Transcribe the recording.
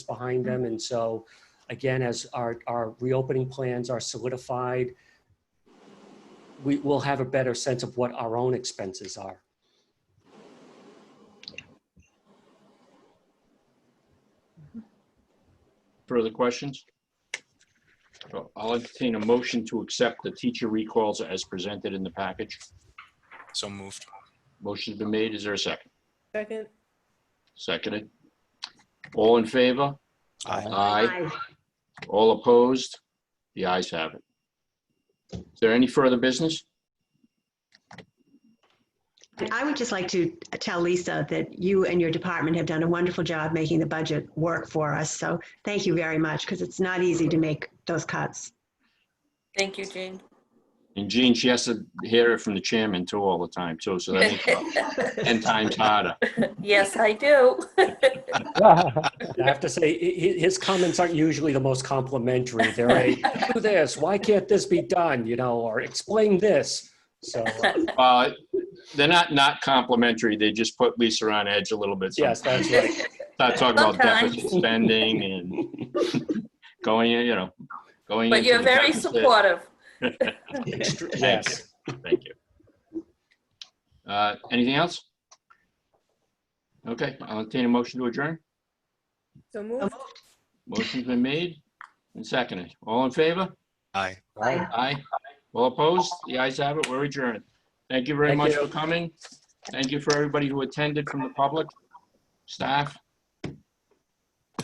behind them. And so, again, as our, our reopening plans are solidified, we will have a better sense of what our own expenses are. Further questions? So I'll entertain a motion to accept the teacher recalls as presented in the package. So moved. Motion's been made. Is there a second? Second, Seconded. All in favor? Aye. Aye. All opposed? The ayes have it. Is there any further business? And I would just like to tell Lisa that you and your department have done a wonderful job making the budget work for us. So thank you very much because it's not easy to make those cuts. Thank you, Jean. And Jean, she has to hear it from the chairman too all the time too, so that makes it 10 times harder. Yes, I do. I have to say, hi- hi- his comments aren't usually the most complimentary. They're a, do this, why can't this be done, you know, or explain this. So, uh, Uh, They're not not complimentary. They just put Lisa on edge a little bit. yes, that's right. Start talking about Sometimes. deficit spending and going, in, you know, going. But into you're the very deficit. supportive. Extr- Yes. Thank you. Uh, Anything else? Okay, I'll entertain a motion to adjourn. so moved. Motion's been made and seconded. All in favor? Aye. Aye. Aye. All opposed? The ayes have it. We're adjourned. Thank you very Thank much you. for coming. Thank you for everybody who attended from the public, staff.